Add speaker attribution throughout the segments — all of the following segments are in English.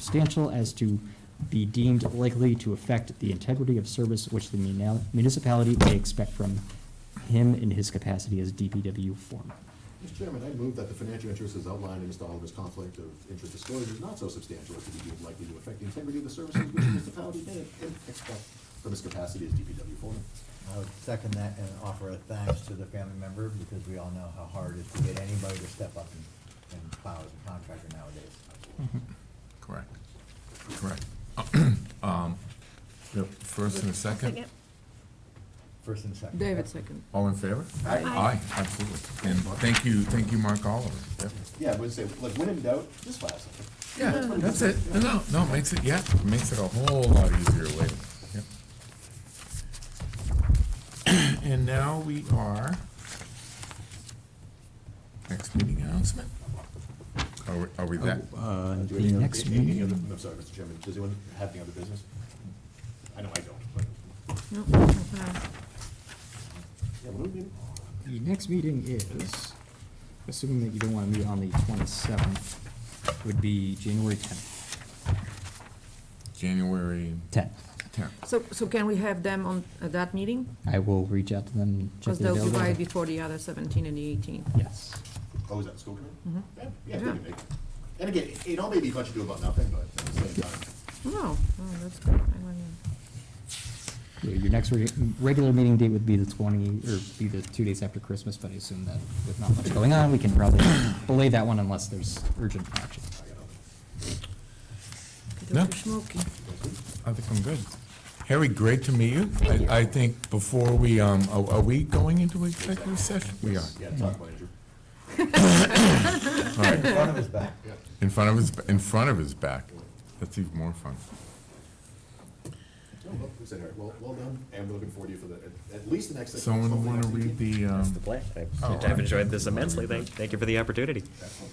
Speaker 1: substantial as to be deemed likely to affect the integrity of service which the muni- municipality may expect from him in his capacity as DPW foreman.
Speaker 2: Mr. Chairman, I move that the financial interest as outlined in Mr. Oliver's conflict of interest disclosure is not so substantial as to be deemed likely to affect the integrity of the services which the municipality may expect from his capacity as DPW foreman.
Speaker 3: I would second that and offer a thanks to the family member, because we all know how hard it is to get anybody to step up and, and plow as a contractor nowadays.
Speaker 4: Correct, correct. Um, we have First and a second,
Speaker 3: First and second.
Speaker 5: David second.
Speaker 4: all in favor?
Speaker 2: Aye.
Speaker 4: Aye, absolutely. And thank you, thank you, Mark Oliver.
Speaker 2: Yeah, I would say, like, when in doubt, just file something.
Speaker 4: Yeah, that's it. No, No, no, it makes it, yeah, it makes it a whole lot easier later. Yep. And now we are, next meeting announcement. Are we, are we that?
Speaker 1: Uh,
Speaker 2: Do
Speaker 1: The
Speaker 2: any other-
Speaker 1: next
Speaker 2: any other-
Speaker 1: meeting,
Speaker 2: I'm sorry, Mr. Chairman, does anyone have any other business? I know I don't, but,
Speaker 5: Nope, okay.
Speaker 2: yeah, what do we do?
Speaker 1: the next meeting is, assuming that you don't want to meet on the twenty-seventh, would be January tenth.
Speaker 4: January
Speaker 1: Tenth.
Speaker 4: tenth.
Speaker 5: So, so can we have them on at that meeting?
Speaker 1: I will reach out to them and check
Speaker 5: Because
Speaker 1: their
Speaker 5: they'll be right
Speaker 1: availability.
Speaker 5: before the other seventeen and the eighteen.
Speaker 1: Yes.
Speaker 2: Oh, is that the school committee?
Speaker 5: Mhm.
Speaker 2: Yeah, Yeah, they
Speaker 5: Yeah.
Speaker 2: can make it. And again, it all may be much ado about nothing, but at the same time,
Speaker 5: No, no, Oh, that's good. I like that.
Speaker 1: Your your next reg- regular meeting date would be the 20, or be the two days after Christmas, but I assume that with not much going on, we can probably belay that one unless there's urgent action.
Speaker 2: I got nothing.
Speaker 4: No.
Speaker 5: Dr. Schmolke.
Speaker 4: I think I'm good. Harry, great to meet you. I, I think before we, um, are, are we going into executive session? We are.
Speaker 2: Yeah, talk about Andrew.
Speaker 4: All right.
Speaker 3: Front of his back.
Speaker 4: In front of his, in front of his back. That's even more fun.
Speaker 2: Oh, well, we said, all right, well, well done, and we're looking forward to you for the, at- at least the next. session,
Speaker 4: Someone
Speaker 2: hopefully
Speaker 4: want to
Speaker 2: next
Speaker 4: read
Speaker 2: meeting.
Speaker 4: the, um,
Speaker 6: the plan. I've-
Speaker 4: Oh,
Speaker 6: I've
Speaker 4: I-
Speaker 6: enjoyed this immensely. Thank, thank you for the opportunity.
Speaker 2: Excellent.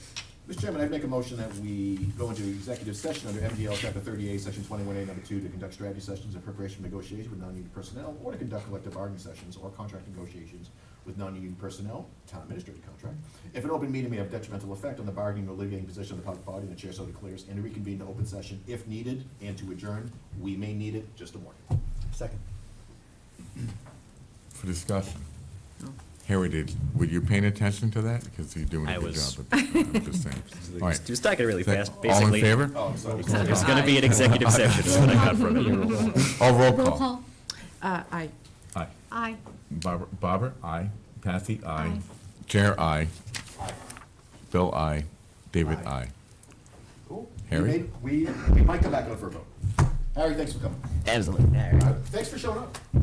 Speaker 2: Mr. Chairman, I'd make a motion that we go into executive session under MDL Chapter thirty-eight, Section twenty-one A, number two, to conduct strategy sessions in preparation for negotiations with non-union personnel, or to conduct collective bargaining sessions or contract negotiations with non-union personnel, town administrative contract. If an open meeting may have detrimental effect on the bargaining or litigating position of the public body, the chair so declares, and to reconvene to open session if needed, and to adjourn, we may need it, just a warning.
Speaker 3: Second.
Speaker 4: for discussion? Harry, did, were you paying attention to that? Because you're doing
Speaker 6: I
Speaker 4: a good
Speaker 6: was.
Speaker 4: job. uh, I'm just saying. All right.
Speaker 6: Just talking really fast,
Speaker 4: All in
Speaker 6: basically.
Speaker 4: favor?
Speaker 2: Oh, I'm sorry.
Speaker 6: There's gonna be an executive session, is what I got from it.
Speaker 4: All Oh, roll call.
Speaker 5: Uh, I,
Speaker 4: Aye.
Speaker 7: Aye.
Speaker 4: Barbara, Barbara, aye. Kathy, aye.
Speaker 7: Aye.
Speaker 4: Chair, aye. Bill, aye. David, aye.
Speaker 2: Cool.
Speaker 4: Harry?
Speaker 2: We, may- we we might come back on for a vote. Harry, thanks for coming.
Speaker 6: Absolutely.
Speaker 2: Uh, Thanks for showing up.